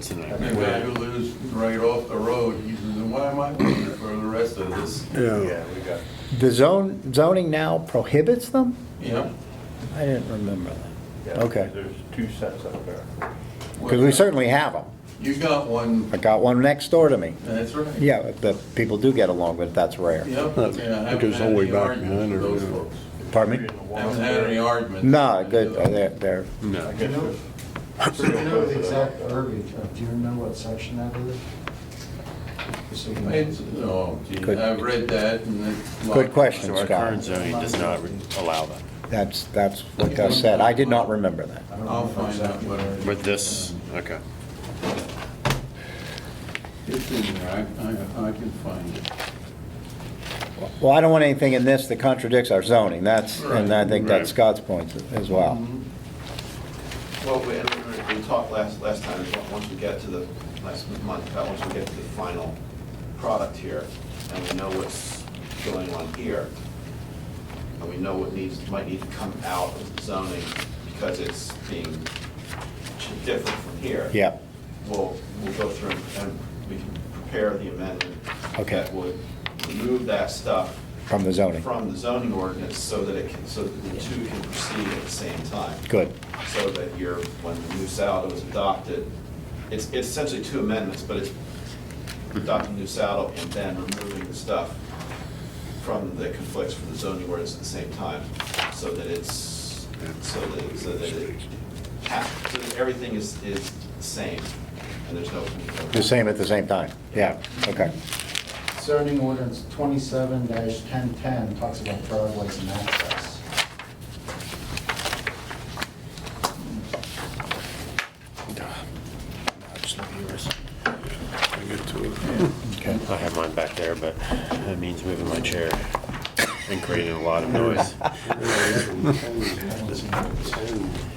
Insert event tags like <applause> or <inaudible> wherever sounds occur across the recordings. tonight. And then you lose right off the road, he says, why am I paying for the rest of this? Yeah. we got. The zone, zoning now prohibits them? Yeah. I didn't remember that. Okay. There's two sets up there. Because we certainly have them. You got one, I got one next door to me. that's right. Yeah, the people do get along, but that's rare. Yep. That- yeah, I that haven't goes had all the way any back arguments behind with there, those yeah. folks. Pardon me? Haven't had any arguments. No, good, uh, they're, they're, No. I guess So you know the exact verbiage, of- do you remember what section that is? Just so we It's, know. oh, gee, Good. I've read that and it's. like- good question, So our current Scott. zoning does not re- allow that. That's, that's what Gus said. I did not remember that. I don't I'll remember find out exactly what- where it is. But this, okay. It's in there, I, I, I can find it. Well, I don't want anything in this that contradicts our zoning. That's, and I think Right. that's Scott's point as well. Well, we, and we- we talked last, last time, is once we get to the, last month, about once we get to the final product here, and we know what's going on here, and we know what needs, might need to come out of zoning, because it's being ch- different from here. Yeah. We'll, we'll go through and we can prepare the amendment. Okay. That would remove that stuff. From the zoning. From the zoning ordinance, so that it can, so that the two can proceed at the same time Good. so that you're, when the new saddle was adopted, it's it's essentially two amendments, but it's adopting new saddle and then removing the stuff from the conflicts for the zoning ordinance at the same time, so that it's, so that, so that it, ha- so that everything is, is the same, and there's no. The same at the same time. Yeah, okay. Zoning ordinance twenty-seven ten ten talks about driveways and access. I get to it. Okay. I have mine back there, but that means moving my chair and creating a lot of <laughs> noise.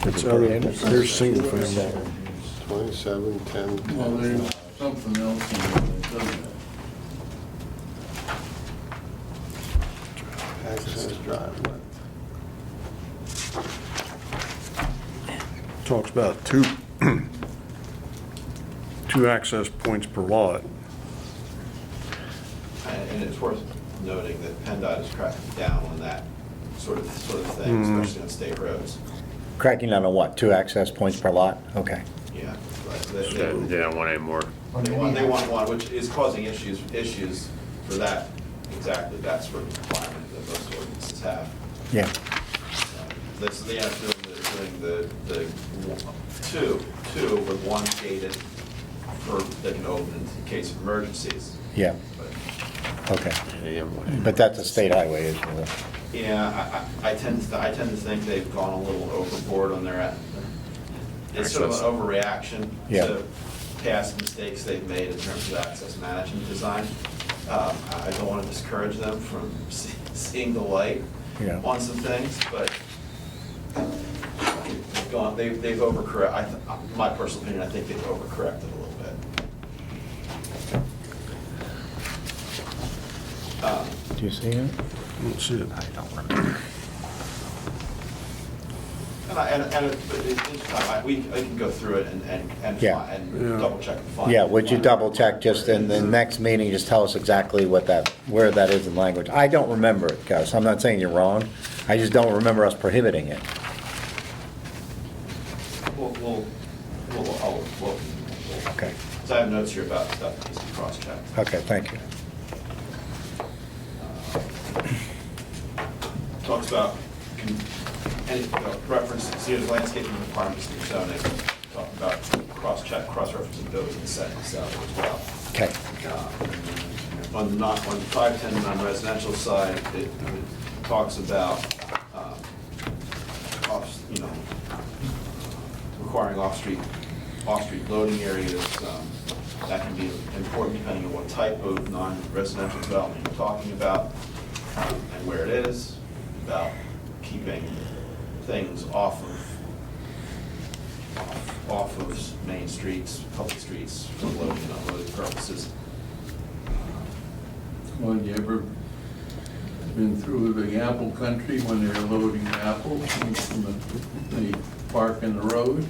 It's out of, there's single family, 27, 10, Well, 10. there's something else in there that doesn't. access driveway. Talks about two, <clears throat> two access points per lot. And and it's worth noting that PennDOT is cracking down on that sort of, sort of thing, especially on state roads, Cracking down on what? Two access points per lot? Okay. yeah. but They they- they- they don't want any more. Or They maybe want, they have- want one, which is causing issues, issues for that, exactly, that sort of requirement that most ordinances have. Yeah. That's the answer, doing the, the one- two, two with one gated for, that can open in case of emergencies. Yeah, But, okay. They don't want any more. But that's a state highway, isn't it? Yeah, I, I I tend to, I tend to think they've gone a little overboard on their, it's sort of an overreaction Yeah. to past mistakes they've made in terms of access management design. Um, I I don't want to discourage them from <laughs> see- seeing the light Yeah. on some things, but they've gone, they've, they've overcorrect, I, th- my personal opinion, I think they've overcorrected a little bit. Do you see it? That's it. And I, and, and it- but it's interesting, I, we, I can go through it and, and, and Yeah. fi- Yeah. and double check and find. Yeah, would you find- double check just in the next meeting, just tell us exactly what that, where that is in language? I don't remember it, Gus. I'm not saying you're wrong. I just don't remember us prohibiting it. We'll, we'll, we'll, I'll- we'll. Okay. Because I have notes here about stuff that needs to be cross-checked. Okay, thank you. Talks about, con- any, uh, reference, see the landscaping requirements in zoning, talk about cross-check, cross-referencing those and setting this out as well. Okay. Uh, On the not, on the 510 non-residential side, it it talks about, um, off, you know, requiring off-street, off-street loading areas. um, That can be important depending on what type of non-residential development you're talking about um, and where it is, about keeping things off of, off- off of main streets, public streets for loading and unloading purposes. Well, you ever been through the apple country when they're loading apples? and They park in the road.